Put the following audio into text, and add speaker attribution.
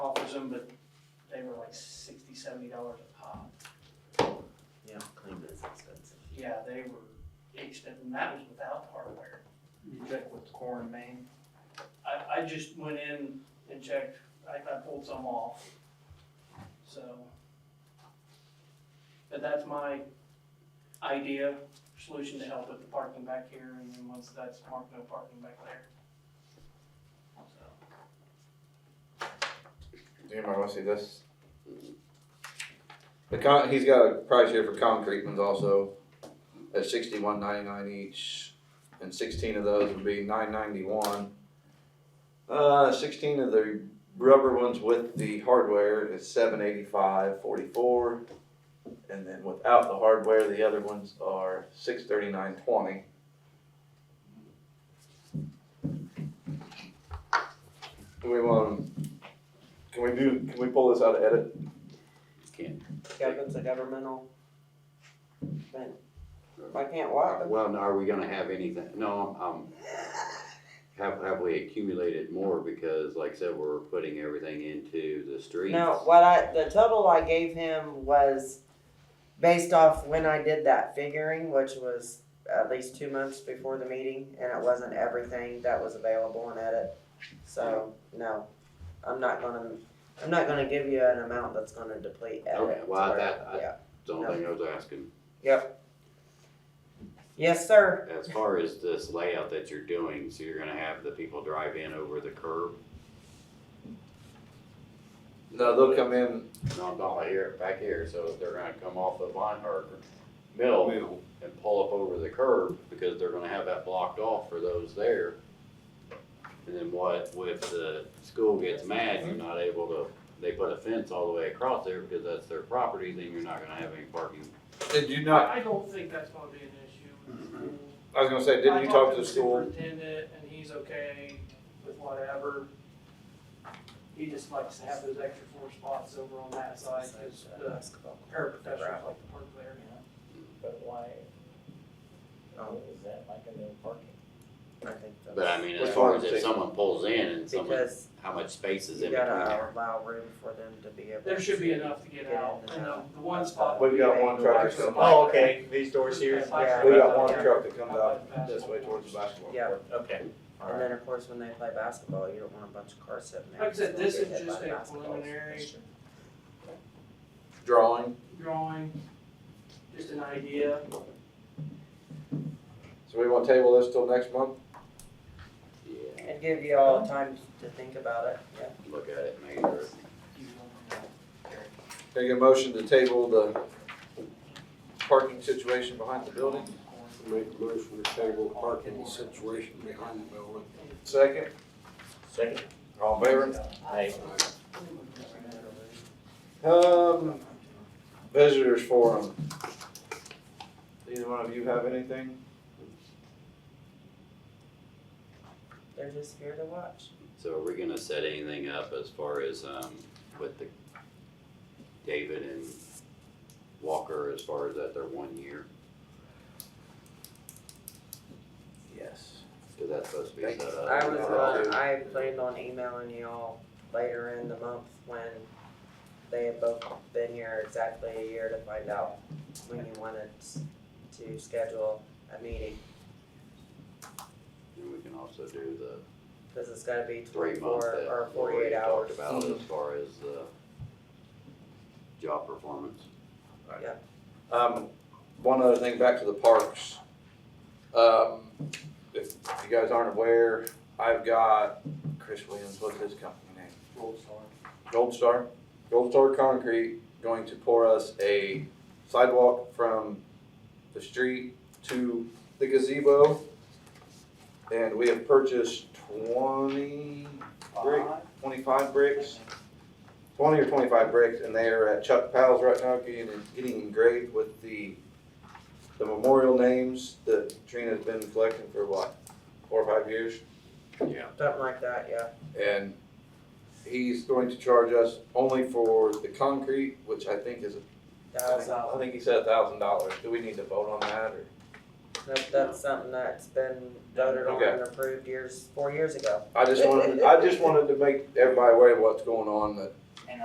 Speaker 1: charged them, but they were like sixty, seventy dollars a pop.
Speaker 2: Yeah, clean is expensive.
Speaker 1: Yeah, they were expensive, and that was without hardware.
Speaker 3: You check with Core and Main,
Speaker 1: I, I just went in and checked, I, I pulled some off, so. But that's my idea, solution to help with the parking back here, and then once that's marked, no parking back there. So,
Speaker 4: Does Anybody want to see this? The con, he's got a price here for concrete ones also, at sixty-one ninety-nine each, and sixteen of those would be nine ninety-one. Uh, sixteen of the rubber ones with the hardware is seven eighty-five forty-four, and then without the hardware, the other ones are six thirty-nine twenty. Do we want, can we do, can we pull this out of edit?
Speaker 5: Kevin's a governmental thing. I can't walk.
Speaker 6: Well, now, are we gonna have anything, no, um, have, have we accumulated more, because like I said, we're putting everything into the streets?
Speaker 5: No, what I, the total I gave him was based off when I did that figuring, which was at least two months before the meeting, and it wasn't everything that was available in edit. So, no, I'm not gonna, I'm not gonna give you an amount that's gonna deplete edit.
Speaker 6: Okay, well,
Speaker 5: or-
Speaker 6: that- I-
Speaker 5: yeah.
Speaker 6: That's the only thing I was asking,
Speaker 5: Yes, sir.
Speaker 6: as far as this layout that you're doing, so you're gonna have the people drive in over the curb,
Speaker 4: No, they'll come in.
Speaker 6: not, not like here, back here, so they're gonna come off the Vine, or Mill and pull up over the curb, because they're gonna have that blocked off for those there. And then what, if the school gets mad, you're not able to, they put a fence all the way across there because that's their property, then you're not gonna have any parking.
Speaker 4: Did you not?
Speaker 1: I don't think that's gonna be an issue with the school.
Speaker 4: I was gonna say, didn't you
Speaker 1: I
Speaker 4: talk
Speaker 1: talked
Speaker 4: to the school?
Speaker 1: Superintendent, and he's okay with whatever. He just likes to have those extra four spots over on that side, cause the paraprofessionals like to park there.
Speaker 3: but why,
Speaker 5: Oh,
Speaker 3: is that like a little parking?
Speaker 5: I think that's-
Speaker 6: But I mean, as
Speaker 4: Which
Speaker 6: far
Speaker 4: one
Speaker 6: as
Speaker 4: is
Speaker 6: if
Speaker 4: it?
Speaker 6: someone pulls in and someone,
Speaker 5: Because
Speaker 6: how much space is
Speaker 5: you
Speaker 6: in between
Speaker 5: gotta
Speaker 6: there?
Speaker 5: allow room for them to be able.
Speaker 1: There should be
Speaker 5: to-
Speaker 1: enough to get
Speaker 5: Get
Speaker 1: out,
Speaker 5: in
Speaker 1: and
Speaker 5: and
Speaker 1: the,
Speaker 5: out.
Speaker 1: the one spot.
Speaker 4: We've got one tractor.
Speaker 1: Bicycle-
Speaker 3: Oh, okay, these doors here,
Speaker 5: Yeah.
Speaker 4: We got one truck that comes out this way towards the basketball
Speaker 5: Yeah.
Speaker 4: court.
Speaker 3: okay.
Speaker 5: And then, of course, when they play basketball, you don't want a bunch of cars sitting there.
Speaker 1: Like I said,
Speaker 5: because they'll
Speaker 1: this
Speaker 5: get
Speaker 1: is
Speaker 5: hit
Speaker 1: just
Speaker 5: by
Speaker 1: a
Speaker 5: basketballs.
Speaker 1: preliminary-
Speaker 5: That's true.
Speaker 4: Drawing,
Speaker 1: Drawing, just an idea.
Speaker 4: so we want to table this till next month?
Speaker 6: Yeah,
Speaker 5: And give you all time to think about it, yeah.
Speaker 6: look at it, make sure.
Speaker 4: Take a motion to table the parking situation behind the building.
Speaker 7: Make a motion to table the parking situation behind the building.
Speaker 4: Second,
Speaker 3: Second,
Speaker 4: all in favor?
Speaker 3: I,
Speaker 4: Um, visitors forum. Either one of you have anything?
Speaker 5: They're just here to watch.
Speaker 6: So are we gonna set anything up as far as, um, with the David and Walker as far as that their one year?
Speaker 4: Yes.
Speaker 6: Cause that's supposed to be
Speaker 4: Thank
Speaker 6: set up.
Speaker 5: I was,
Speaker 4: uh,
Speaker 5: gonna- I planned on emailing you all later in the month when they had both been here exactly a year to find out when you wanted s- to schedule a meeting,
Speaker 6: And we can also do the
Speaker 5: because it's gotta be
Speaker 6: three month
Speaker 5: twenty-four
Speaker 6: that
Speaker 5: or
Speaker 6: Lori
Speaker 5: forty-eight hours.
Speaker 6: talked about as far as the job performance.
Speaker 4: Um, one other thing, back to the parks. Um, if you guys aren't aware, I've got Chris Williams, what's his company name? Gold Star, Gold Star Concrete going to pour us a sidewalk from the street to the gazebo. And we have purchased twenty brick, twenty-five bricks, twenty or twenty-five bricks, and they are at Chuck Powell's right now getting, getting engraved with the, the memorial names that Trina's been collecting for what, four or five years?
Speaker 5: Something like that, yeah.
Speaker 4: and he's going to charge us only for the concrete, which I think is, I think-
Speaker 5: Thousand.
Speaker 4: I think he said a thousand dollars. Do we need to vote on that or?
Speaker 5: That, that's something that's been voted on and approved years, four years ago.
Speaker 4: I just wanted, I just wanted to make everybody aware of what's going on, that